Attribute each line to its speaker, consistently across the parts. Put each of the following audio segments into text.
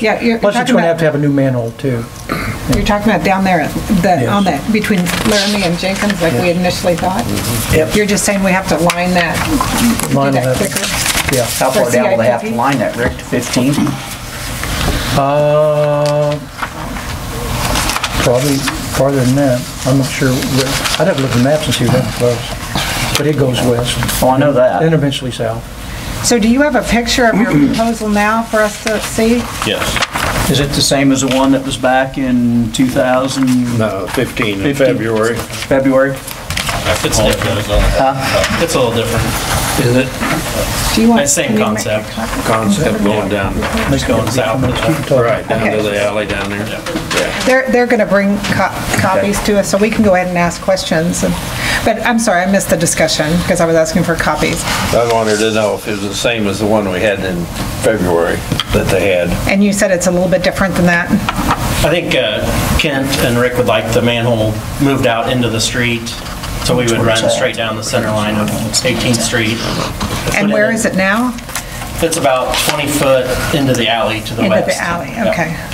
Speaker 1: Yeah, you're you're
Speaker 2: Plus, it's
Speaker 1: talking
Speaker 2: going to have
Speaker 1: about,
Speaker 2: to have a new manhole, too.
Speaker 1: you're talking about down there, at the, on that, between Laramie and Jenkins, like we initially thought?
Speaker 2: Mm-hmm. Yep.
Speaker 1: You're just saying we have to line that, do
Speaker 2: Line
Speaker 1: that
Speaker 2: it up.
Speaker 1: quicker?
Speaker 2: Yeah.
Speaker 3: How far
Speaker 1: For
Speaker 3: down will they have to
Speaker 1: CIPP?
Speaker 3: line that, Rick, to Oh, 15?
Speaker 2: Uh, Probably farther than that. I'm not sure. where- I'd have to look at the maps and see where that was. But it goes west
Speaker 3: Well, I know
Speaker 2: and
Speaker 3: that.
Speaker 2: eventually south.
Speaker 1: So do you have a picture of your proposal now for us to see?
Speaker 4: Yes,
Speaker 3: Is it the same as the one that was back in 2000,
Speaker 5: No, 15 in
Speaker 3: 15.
Speaker 5: February.
Speaker 3: February?
Speaker 4: it's different. It's a little different.
Speaker 5: Is it?
Speaker 1: Do you want?
Speaker 4: That same
Speaker 1: can you make
Speaker 4: concept.
Speaker 1: a copy?
Speaker 5: Concept going down,
Speaker 4: Just going south. of that.
Speaker 5: right, down to
Speaker 1: Okay.
Speaker 5: the alley down there.
Speaker 1: They're, they're going to bring co- copies to us, so we can go ahead and ask questions. and- But I'm sorry, I missed the discussion because I was asking for copies.
Speaker 6: I wanted to know if it was the same as the one we had in February that they had.
Speaker 1: And you said it's a little bit different than that?
Speaker 4: I think uh, Kent and Rick would like the manhole moved out into the street, so we would run straight down the center line of 18th Street.
Speaker 1: And where is it now?
Speaker 4: It's about 20 foot into the alley to the
Speaker 1: Into
Speaker 4: west.
Speaker 1: the alley,
Speaker 4: Yeah.
Speaker 1: okay.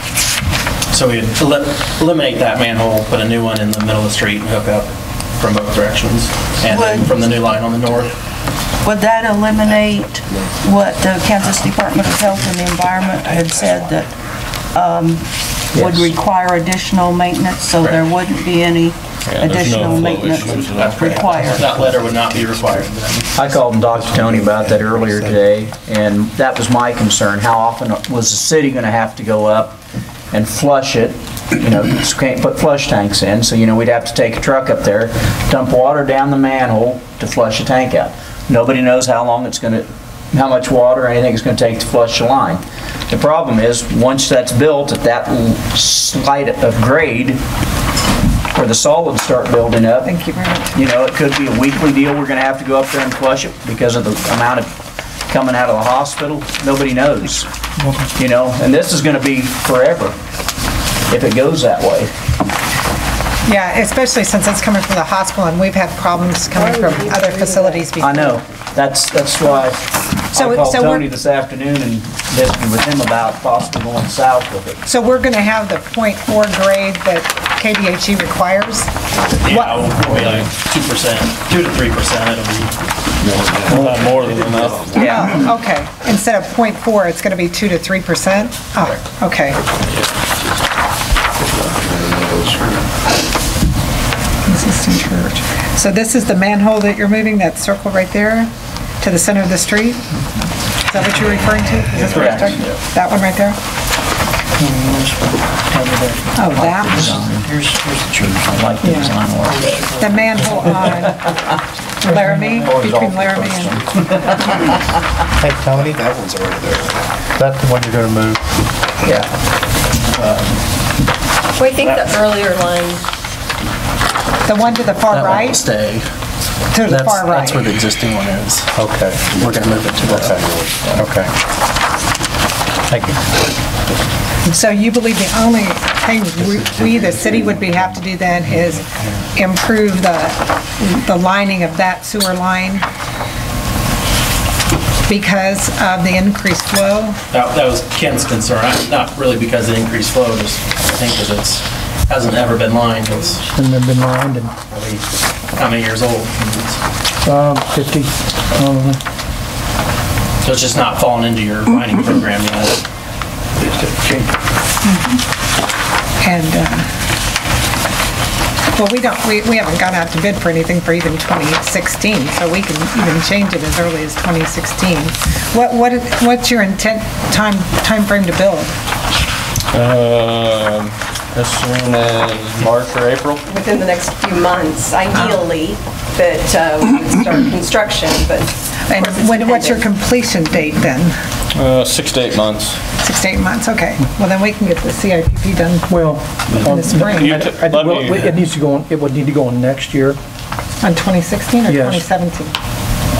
Speaker 4: So we'd elim- eliminate that manhole, put a new one in the middle of the street and hook up from both directions, and then
Speaker 7: Would-
Speaker 4: from the new line on the north.
Speaker 7: Would that eliminate what the Kansas Department of Health and the Environment had said that um, would
Speaker 2: Yes.
Speaker 7: require additional maintenance, so there wouldn't be any additional maintenance required?
Speaker 4: That letter would not be required then.
Speaker 3: I called and talked to Tony about that earlier today, and that was my concern. How often was the city going to have to go up and flush it? You know, just can't put flush tanks in, so, you know, we'd have to take a truck up there, dump water down the manhole to flush a tank out. Nobody knows how long it's going to, how much water or anything it's going to take to flush a line. The problem is, once that's built at that slight of grade, where the solids start building up,
Speaker 1: Thank you very much.
Speaker 3: you know, it could be a weekly deal, we're gonna have to go up there and flush it because of the amount of coming out of the hospital, nobody knows. You know, and this is gonna be forever if it goes that way.
Speaker 1: Yeah, especially since it's coming from the hospital, and we've had problems coming from other facilities before.
Speaker 3: I know, that's, that's why
Speaker 1: So
Speaker 3: I
Speaker 1: it-
Speaker 3: called
Speaker 1: so we're-
Speaker 3: Tony this afternoon and visited with him about possibly going south with it.
Speaker 1: So we're going to have the .4 grade that KDHE E requires?
Speaker 4: Yeah, we'll be like 2%, 2 to 3%, it'll be a lot more than enough.
Speaker 3: Yeah,
Speaker 1: Oh, Okay, instead of .4, it's going to be 2 to 3 percent? Oh, okay. Existing church. So this is the manhole that you're moving, that circle right there, to the center of the street? Is that what you're referring to? Is this what you're
Speaker 3: Correct.
Speaker 1: talking- That one right there? Oh, that one.
Speaker 3: here's, here's the church, I like the design work.
Speaker 1: The manhole on Laramie,
Speaker 3: Always
Speaker 1: between
Speaker 3: awful
Speaker 1: Laramie and,
Speaker 8: Hey, Tony? That one's already there. That's the one you're gonna move?
Speaker 3: Yeah,
Speaker 9: We think the earlier line
Speaker 1: the one to the far
Speaker 10: That one
Speaker 1: right,
Speaker 10: will stay.
Speaker 1: to the
Speaker 10: That's,
Speaker 1: far right.
Speaker 10: that's where the existing one is.
Speaker 8: Okay,
Speaker 10: We're gonna move it to the,
Speaker 8: okay. Thank you.
Speaker 1: So you believe the only thing we- we, the city, would be, have to do then is improve the, the lining of that sewer line because of the increased flow?
Speaker 4: That, that was Ken's concern, I- not really because of increased flow, just I think because it's, hasn't ever been lined, it's
Speaker 2: And they've been lined and
Speaker 4: probably how many years old? and
Speaker 2: uh, 50, um,
Speaker 4: it's- So it's just not falling into your mining program yet.
Speaker 1: And, uh, well, we don't, we, we haven't gone out to bid for anything for even 2016, so we can even change it as early as 2016. What, what, what's your intent, time, timeframe to build?
Speaker 6: Um, as soon as March or April?
Speaker 9: within the next few months, ideally, that uh, we would start construction, but of
Speaker 1: And
Speaker 9: course it's
Speaker 1: when- what's your
Speaker 9: dependent.
Speaker 1: completion date then?
Speaker 6: Uh, six to eight months.
Speaker 1: Six to eight months, okay. Well, then we can get the CIPP done
Speaker 2: well, um,
Speaker 1: in the spring,
Speaker 6: You
Speaker 1: on
Speaker 6: t-
Speaker 2: I-
Speaker 6: let
Speaker 2: well,
Speaker 6: me-
Speaker 2: it needs to go on, it would need to go on next year,
Speaker 1: 2016 or
Speaker 2: Yes.
Speaker 1: 2017?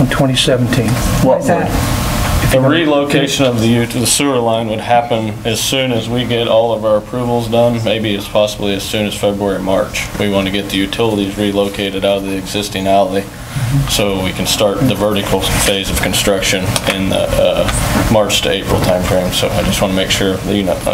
Speaker 2: on 2017.
Speaker 3: what
Speaker 1: Is that,
Speaker 3: would,
Speaker 6: The relocation of the ut- the sewer line would happen as soon as we get all of our approvals done, maybe as possibly as soon as February, March. We want to get the utilities relocated out of the existing alley so we can start the vertical phase of construction in the uh, March to April timeframe. So I just want to make sure that you know,